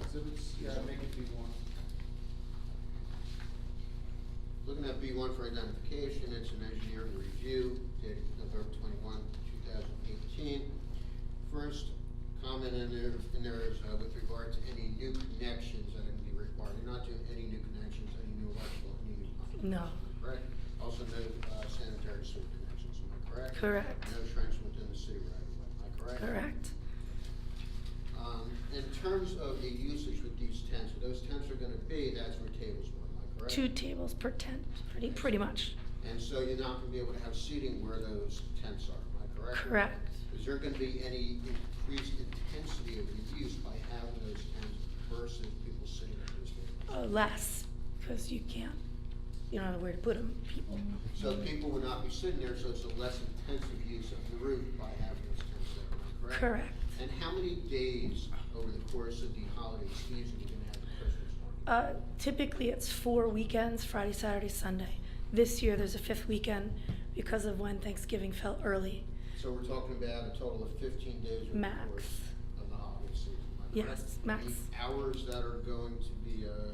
exhibits, yeah, make it be one. Looking at B one for identification, it's an engineering review dated November twenty-one, two thousand eighteen. First comment in there, in there is uh, with regard to any new connections that are gonna be required. You're not doing any new connections, any new electrical, any new plumbing. No. Correct? Also no uh, sanitary sewer connections, am I correct? Correct. No trench within the city right of way, am I correct? Correct. Um, in terms of the usage with these tents, those tents are gonna be, that's where tables were, am I correct? Two tables per tent, pretty, pretty much. And so you're not gonna be able to have seating where those tents are, am I correct? Correct. Is there gonna be any increased intensity of the use by having those tents versus people sitting at those tables? Uh, less, because you can't, you don't know where to put them, people. So people would not be sitting there, so it's a less intensive use of the roof by having those tents there, am I correct? Correct. And how many days over the course of the holiday season are you gonna have the Christmas market? Uh, typically, it's four weekends, Friday, Saturday, Sunday. This year, there's a fifth weekend because of when Thanksgiving fell early. So we're talking about a total of fifteen days over the Max. course of the holiday season, am I correct? Yes, max. The Hours that are going to be, uh,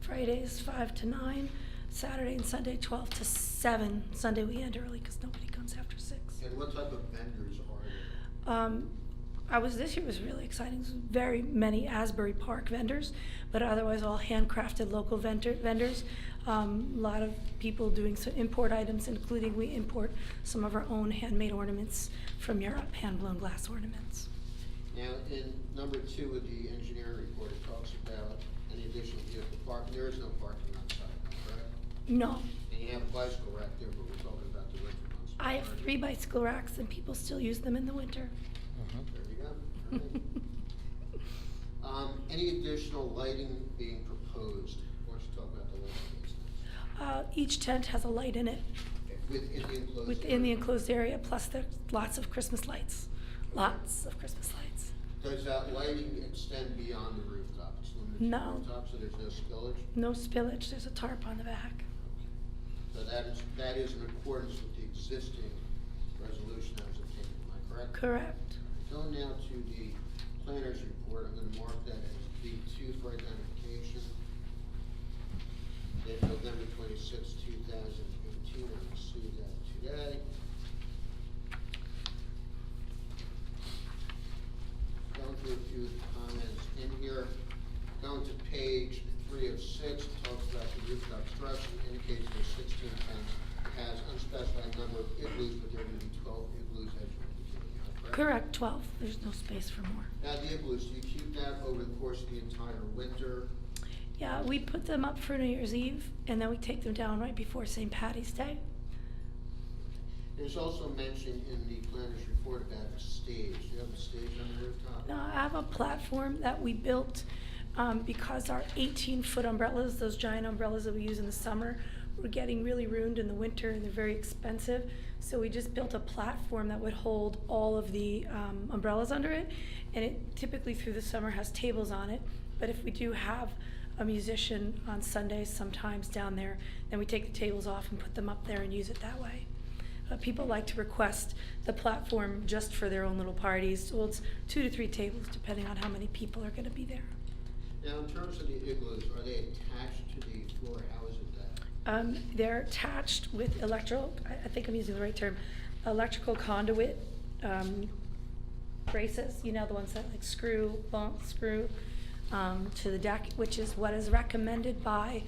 Fridays, five to nine, Saturday and Sunday, twelve to seven. Sunday, we end early because nobody comes after six. And what type of vendors are there? Um, I was, this year was really exciting, There's very many Asbury Park vendors, but otherwise all handcrafted local vendor, vendors. Um, a lot of people doing some import items, including we import some of our own handmade ornaments from Europe, hand-blown glass ornaments. Now, in number two of the engineering report, it talks about any additional vehicle parking, there is no parking outside, correct? No, And you have a bicycle rack there, but we're talking about the winter months. I have correct? three bicycle racks and people still use them in the winter. There you go. All right. Um, any additional lighting being proposed? Why don't you talk about the lighting business? Uh, each tent has a light in it Within the enclosed. within the area. enclosed area, plus there's lots of Christmas lights, lots of Christmas lights. Does that lighting extend beyond the rooftop? It's limited to No. Rooftop, so there's no spillage? No spillage, there's a tarp on the back. So that is, that is in accordance with the existing resolution that was obtained, am I correct? Correct. Going now to the planner's report, I'm gonna mark that as B two for identification. Dated November twenty-six, two thousand eighteen, I received that today. Going through a few of the comments in here, going to page three of six, talks about the rooftop structure, indicates there's sixteen tents. It has unspecified number of igloos, but there are gonna be twelve igloos as you indicated, am I correct? Correct, 12. There's no space for more. Now, the igloos, do you keep that over the course of the entire winter? Yeah, we put them up for New Year's Eve and then we take them down right before St. Patty's Day. There's also mention in the planner's report about a stage. Do you have a stage on the rooftop? Now, I have a platform that we built um, because our 18 foot umbrellas, those giant umbrellas that we use in the summer, were getting really ruined in the winter and they're very expensive. So we just built a platform that would hold all of the um, umbrellas under it. And it typically through the summer has tables on it. But if we do have a musician on Sundays sometimes down there, then we take the tables off and put them up there and use it that way. Uh, people like to request the platform just for their own little parties. Well, it's two to three tables, depending on how many people are going to be there. Now, in terms of the igloos, are they attached to the floor? How is it that? Um, they're attached with electrical, I, I think I'm using the right term, electrical conduit um, braces, you know, the ones that like screw, bump, screw um, to the deck, which is what is recommended by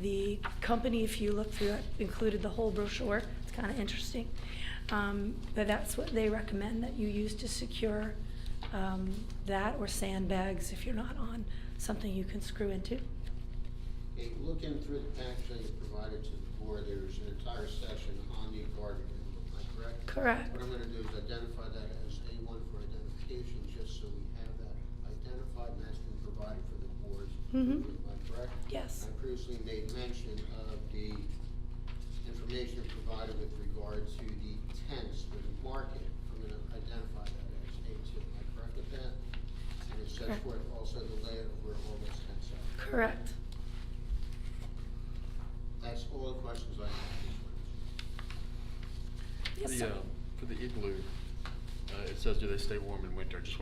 the company. If you look through it, included the whole brochure. It's kind of interesting. Um, but that's what they recommend that you use to secure um, that or sandbags if you're not on something you can screw into. Okay, looking through the package that you provided to the board, there's an entire section on the garden igloo, am I correct? Correct. What I'm gonna do is identify that as A one for identification, just so we have that identified and that's been provided for the board's Mhm. approval, am I correct? Yes. I previously made mention of the information provided with regard to the tents for the market. I'm gonna identify that as A two, am I correct with that? And it sets Correct. forth also the layout of where all those tents are. Correct. That's all the questions I have. Yes, The, sir. uh, um, For the igloo, uh, it says, do they stay warm in winter? I just